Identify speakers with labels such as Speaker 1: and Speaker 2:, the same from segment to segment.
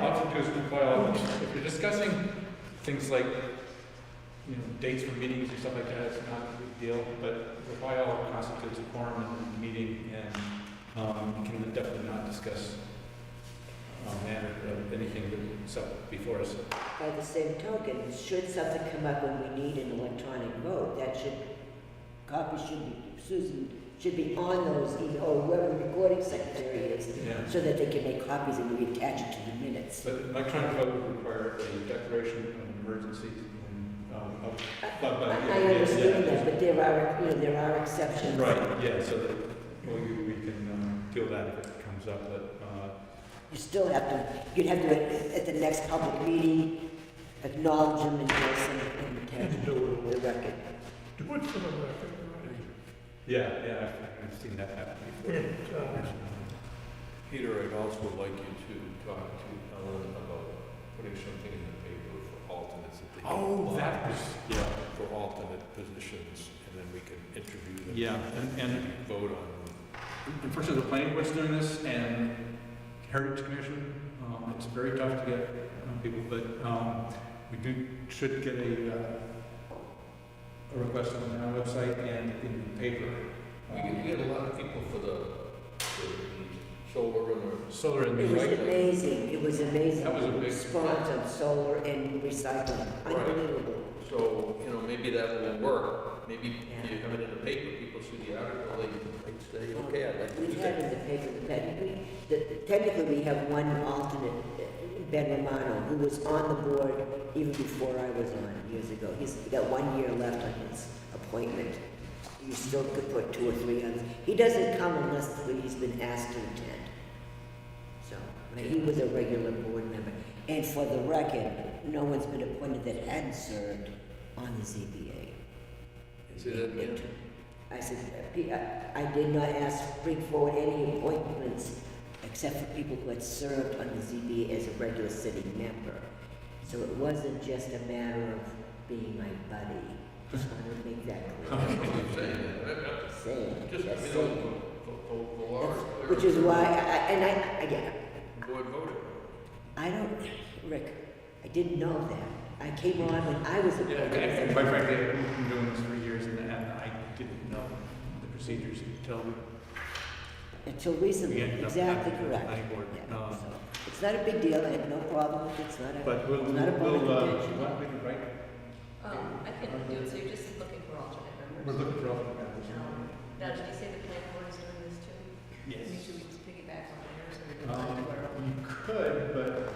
Speaker 1: want to do is compile, if you're discussing things like, you know, dates for meetings or stuff like that, it's not a big deal, but compile constitutes a quorum in the meeting, and, um, you can definitely not discuss, um, matter of anything that's up before us.
Speaker 2: By the same token, should something come up when we need an electronic vote, that should, copies should be, Susan, should be on those, e- or whoever the recording secretary is,
Speaker 1: Yeah.
Speaker 2: so that they can make copies and we attach it to the minutes.
Speaker 1: But electronic vote would require a declaration of emergency and, um, of, but,
Speaker 2: I
Speaker 1: but.
Speaker 2: I understand that, but there are, you know, there are exceptions.
Speaker 1: Right, yeah, so that, well, you- we can, um, deal with that if it comes up, but, uh,
Speaker 2: You still have to, you'd have to, at- at the next public meeting, acknowledge them and yes, and- and attach
Speaker 3: And do
Speaker 2: them to the record.
Speaker 3: it, do it for the record, right?
Speaker 1: yeah, yeah, I've- I've seen that happen before.
Speaker 3: And, uh,
Speaker 4: Peter, I'd also like you to talk to Ellen about putting something in the paper for alternates that they can
Speaker 1: Oh,
Speaker 4: apply.
Speaker 1: that was, yeah,
Speaker 4: For alternate positions, and then we can interview them.
Speaker 1: Yeah, and- and-
Speaker 4: Vote on them.
Speaker 1: unfortunately, the planning board's doing this and Heritage Commission, um, it's very tough to get um, people, but, um, we do, should get a, uh, a request on our website and in the paper.
Speaker 4: We get, we get a lot of people for the, for the solar and the.
Speaker 1: Um, Solar and.
Speaker 2: It was
Speaker 4: Right.
Speaker 2: amazing, it was amazing.
Speaker 1: That was a big-
Speaker 2: Response on solar and recycling,
Speaker 4: Right.
Speaker 2: unbelievable.
Speaker 4: So, you know, maybe that will work, maybe you have it in the paper, people see the article, they like say, okay, I'd like to
Speaker 2: We
Speaker 4: do
Speaker 2: had
Speaker 4: that.
Speaker 2: in the paper, that we, that technically we have one alternate, uh, Ben Romano, who was on the board even before I was on years ago. He's got one year left on his appointment. You still could put two or three others. He doesn't come unless he's been asked to attend. So, but he was a regular board member. And for the record, no one's been appointed that hadn't served on the ZBA.
Speaker 4: Say that again?
Speaker 2: I said, "P- I- I did not ask, bring forward any appointments except for people who had served on the ZBA as a regular sitting member. So it wasn't just a matter of being my buddy. Just wanted to make that clear.
Speaker 4: I'm saying that, I'm not
Speaker 2: Same,
Speaker 4: Just,
Speaker 2: that's
Speaker 4: you know,
Speaker 2: same.
Speaker 4: the, the, the law is
Speaker 2: That's-
Speaker 4: clear.
Speaker 2: Which is why, I, I- and I, again,
Speaker 4: Board voted.
Speaker 2: I don't, Rick, I didn't know that. I came on when I was a
Speaker 1: Yeah,
Speaker 2: board
Speaker 1: and- and
Speaker 2: member.
Speaker 1: quite frankly, I've been doing this for years and and I didn't know the procedures until
Speaker 2: Until
Speaker 1: we
Speaker 2: recently,
Speaker 1: ended up.
Speaker 2: exactly
Speaker 1: having the
Speaker 2: correct.
Speaker 1: planning board.
Speaker 2: Yeah,
Speaker 1: Um,
Speaker 2: so It's not a big deal, I have no problem, with it. it's not a.
Speaker 1: But we'll,
Speaker 2: Not a public
Speaker 1: we'll, uh,
Speaker 2: intention.
Speaker 1: you want me to write?
Speaker 5: Um, I can do it, so you're just looking for alternate
Speaker 1: we're
Speaker 5: members.
Speaker 1: looking for all the members.
Speaker 5: Um, Now, did you say the planning board is doing this too? I mean,
Speaker 1: Yes.
Speaker 5: Should we just piggyback on theirs and we can
Speaker 1: Um,
Speaker 5: find where?
Speaker 1: you could, but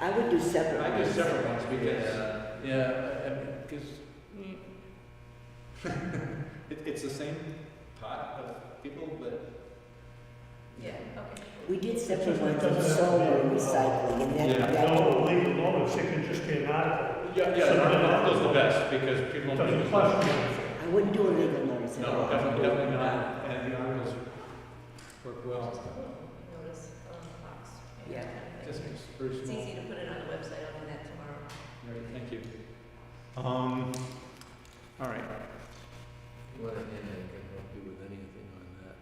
Speaker 2: I would do separate.
Speaker 1: I do
Speaker 2: ones.
Speaker 1: separate ones because,
Speaker 4: uh,
Speaker 1: yeah, because
Speaker 2: Mm.
Speaker 1: it, it's the same pot of people, but.
Speaker 5: Yeah, okay.
Speaker 2: We did separate
Speaker 3: Just like
Speaker 2: ones on
Speaker 3: that.
Speaker 2: solar recycling and
Speaker 1: Yeah.
Speaker 2: that,
Speaker 3: no,
Speaker 2: that,
Speaker 3: leave it alone, it's it can just be an article.
Speaker 1: Yeah, yeah,
Speaker 3: So-
Speaker 1: that- that's the best because people.
Speaker 3: Doesn't question
Speaker 2: I wouldn't do a legal notice at all.
Speaker 1: No, definitely, definitely not, and the articles work well,
Speaker 5: Hmm, Notice on the box.
Speaker 2: Yeah.
Speaker 1: just makes
Speaker 5: It's
Speaker 1: very small.
Speaker 5: easy to put it on the website, I'll do that tomorrow.
Speaker 1: Right, thank you. Um, all right,
Speaker 4: You want to, and I uh, can help you with anything on that,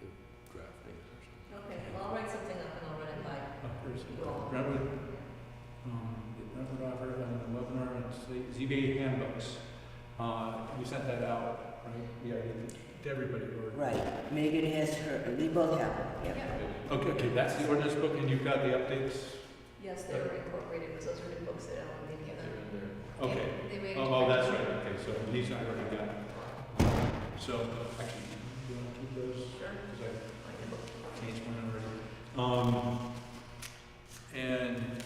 Speaker 4: if drafting or something.
Speaker 5: Okay, well, I'll write something up and I'll run it by
Speaker 1: uh, there's
Speaker 5: you all.
Speaker 1: Brentwood, um, Brentwood offered on the webinar, and it's the ZBA handbooks. Uh, we sent that out, right? Yeah, to everybody, or?
Speaker 2: Right, Megan has her, they both have them, yeah.
Speaker 5: Yeah.
Speaker 1: Okay, okay, that's the ordinance book, and you've got the updates?
Speaker 5: Yes, they were incorporated, because those were the books that Ellen did give
Speaker 4: They're
Speaker 5: them.
Speaker 4: in there.
Speaker 1: Okay.
Speaker 5: They- They waited.
Speaker 1: Oh, oh, that's right, okay, so these I already got. So, actually, do you want to keep those?
Speaker 5: Sure.
Speaker 1: Because I
Speaker 5: I can look.
Speaker 1: Change one already. Um, and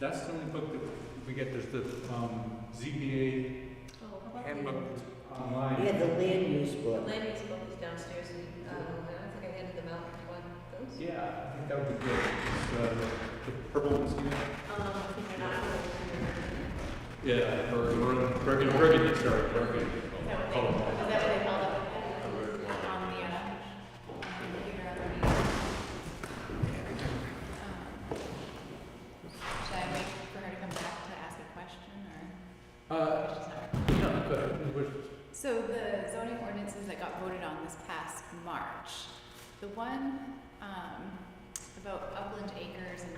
Speaker 1: that's the only book that we get, there's the, um, ZBA
Speaker 5: Oh, how about the-
Speaker 1: handbook online.
Speaker 2: Yeah, the land use
Speaker 5: The
Speaker 2: book.
Speaker 5: land use book is downstairs, and, um, I don't think I handed them out, do you want those?
Speaker 1: Yeah, I think that would be good. It's, uh, the purple ones, you know?
Speaker 5: Um, they're not really clear.
Speaker 1: Yeah, or, or, burgundy, burgundy, sorry, burgundy.
Speaker 6: Is that what they,
Speaker 1: Color.
Speaker 6: is that what they called it on the, uh, on the computer at the meeting? Um, Should I wait for her to come back to ask a question or?
Speaker 1: Uh,
Speaker 6: she's not-
Speaker 1: no, but, we're-
Speaker 6: So the zoning ordinances that got voted on this past March, the one, um, about upland acres and